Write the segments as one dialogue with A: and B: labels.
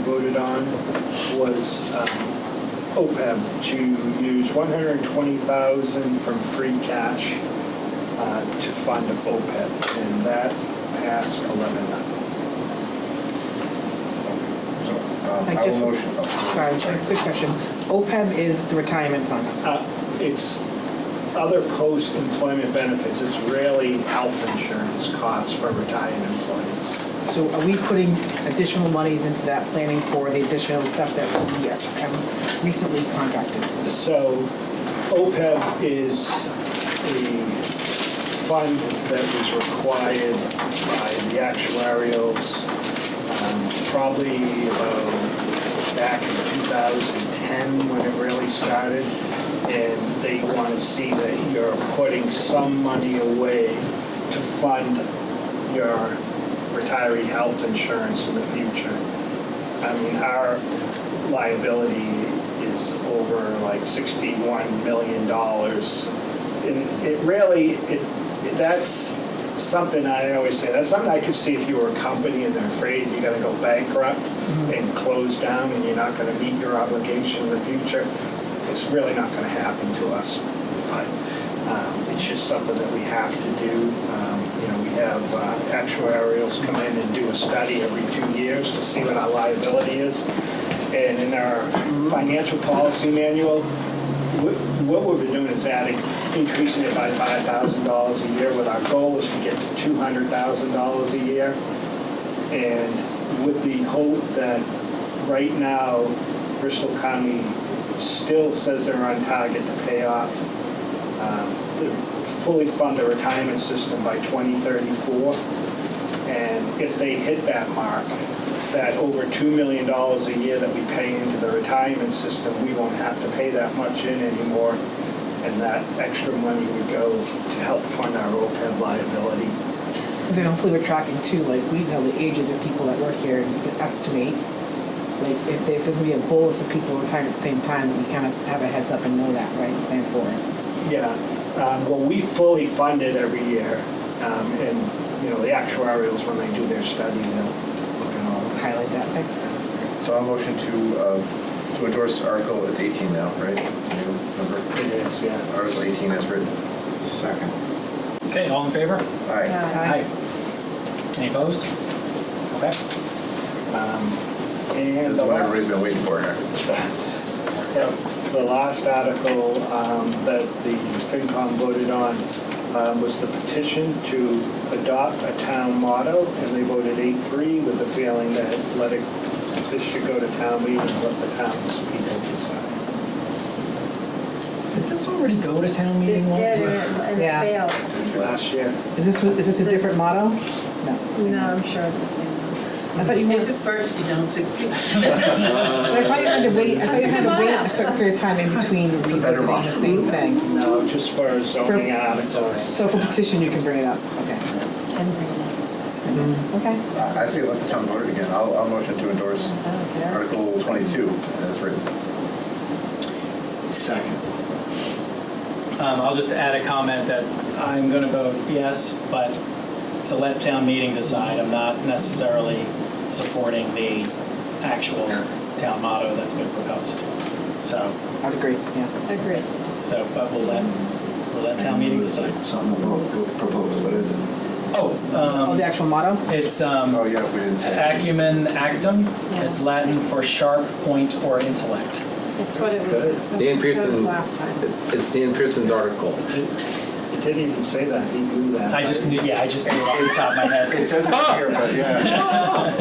A: voted on was um, OPEB to use 120,000 from free cash uh, to fund OPEB, and that passed 11 nothing.
B: So, um,
C: I
B: I will
C: just-
B: motion. oh,
C: Sorry, sorry, quick question. OPEB is the retirement fund.
A: Uh, It's other post-employment benefits, it's really health insurance costs for retired employees.
C: So are we putting additional monies into that planning for the additional stuff that we uh, have recently contracted?
A: So OPEB is the fund that was required by the actuarials um, probably about back in 2010 when it really started. And they want to see that you're putting some money away to fund your retiree health insurance in the future. I mean, our liability is over like sixty-one million dollars. And it really, it, that's something I always say, that's something I could see if you were a company and they're afraid you're gonna go bankrupt and close down and you're not gonna meet your obligation in the future. It's really not gonna happen to us, but, um, it's just something that we have to do. Um, You know, we have uh, actuarials come in and do a study every two years to see what our liability is. And in our financial policy manual, wh- what we've been doing is adding, increasing it by $5,000 a year with our goal is to get to $200,000 a year. And with the hope that right now Bristol County still says they're on target to pay off um, to fully fund the retirement system by 2034. And if they hit that mark, that over $2 million a year that we pay into the retirement system, we won't have to pay that much in anymore. And that extra money would go to help fund our OPEB liability.
C: Because then hopefully we're tracking too, like, we know the ages of people that work here, and we can estimate, like, if there- if there's gonna be a bolus of people retiring at the same time, we kind of have a heads up and know that, right, and plan for it.
A: Yeah, um, well, we fully fund it every year. Um, And, you know, the actuarials, when they do their study, they'll look at all of that.
C: Highlight that, okay?
B: So I'll motion to, uh, to endorse Article, it's 18 now, right? New number.
A: It is, yeah.
B: Article 18 as written. Second.
D: Okay, all in favor?
B: Aye.
C: Aye.
D: Any opposed? Okay.
A: Um, And
B: This is
A: the
B: what
A: last-
B: everybody's been waiting for here.
A: Yep, The last article um, that the FinCom voted on um, was the petition to adopt a town motto, and they voted 8-3 with the feeling that let it, this should go to town meeting, let the townspeople decide.
D: Did this already go to town meeting
E: This
D: once?
E: did, and it-
C: Yeah.
E: and it failed.
A: Last year,
C: Is this, is this a
E: This-
C: different motto? No.
E: No, I'm sure it's the same.
C: I thought you meant,
F: At first, you don't succeed.
C: I thought you had to wait, I thought you had to wait a certain period of time in between
B: a
C: revisiting
B: better
C: the
B: motto.
C: same thing.
A: no, just for zoning
C: For-
A: articles.
C: So for petition, you can bring it up, okay.
E: And bring it
C: Okay.
B: I I say let the town vote it again. I'll, I'll motion to endorse
E: up. Oh, there.
B: Article 22 as written.
A: Second.
D: Um, I'll just add a comment that I'm going to vote yes, but to let town meeting decide, I'm not necessarily supporting the actual town motto that's been proposed. So,
C: I'd agree, yeah.
E: Agreed.
D: so, but we'll let, we'll let town meeting decide.
G: Something about proposed, what is it?
D: Oh,
C: Oh, the
D: um,
C: actual motto?
D: it's, um,
B: Oh, yeah, we didn't say.
D: acumen actum.
E: Yeah.
D: It's Latin for sharp point or intellect.
E: It's what it was.
A: Good.
E: what
H: Dan
E: it was
H: Pearson.
E: Last time.
H: It's it's Dan Pearson's article.
A: It didn't even say that, he knew that.
D: I just knew, yeah, I just knew off the top of my head.
B: It says it here, but yeah.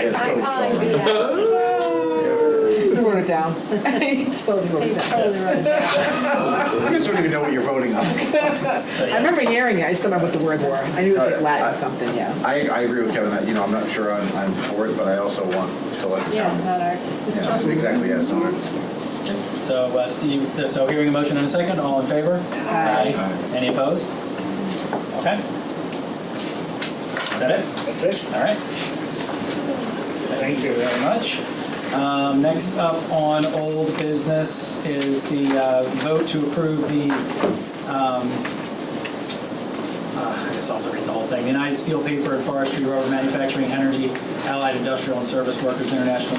B: It's
E: I'm calling
B: totally wrong.
E: BS.
C: You wrote it down. You totally wrote
E: They
C: it down.
E: totally wrote it down.
B: You guys don't even know what you're voting on.
D: So,
C: I
D: yeah.
C: remember hearing it, I just don't remember what the words were. I knew it was like Latin something, yeah.
B: I, I agree with Kevin. I- You know, I'm not sure I'm, I'm for it, but I also want to let the
E: Yeah,
B: town.
E: it's not ours.
B: Yeah, exactly, yes, no, it's-
D: So, uh, Steve, so hearing a motion in a second, all in favor?
C: Aye.
D: Any opposed? Okay. Is that it?
A: That's it,
D: All right.
A: thank you.
D: very much. Um, Next up on old business is the uh, vote to approve the um, uh, I guess I'll have to read the whole thing. The United Steel Paper and Forestry, Rubber Manufacturing, Energy, Allied Industrial and Service Workers International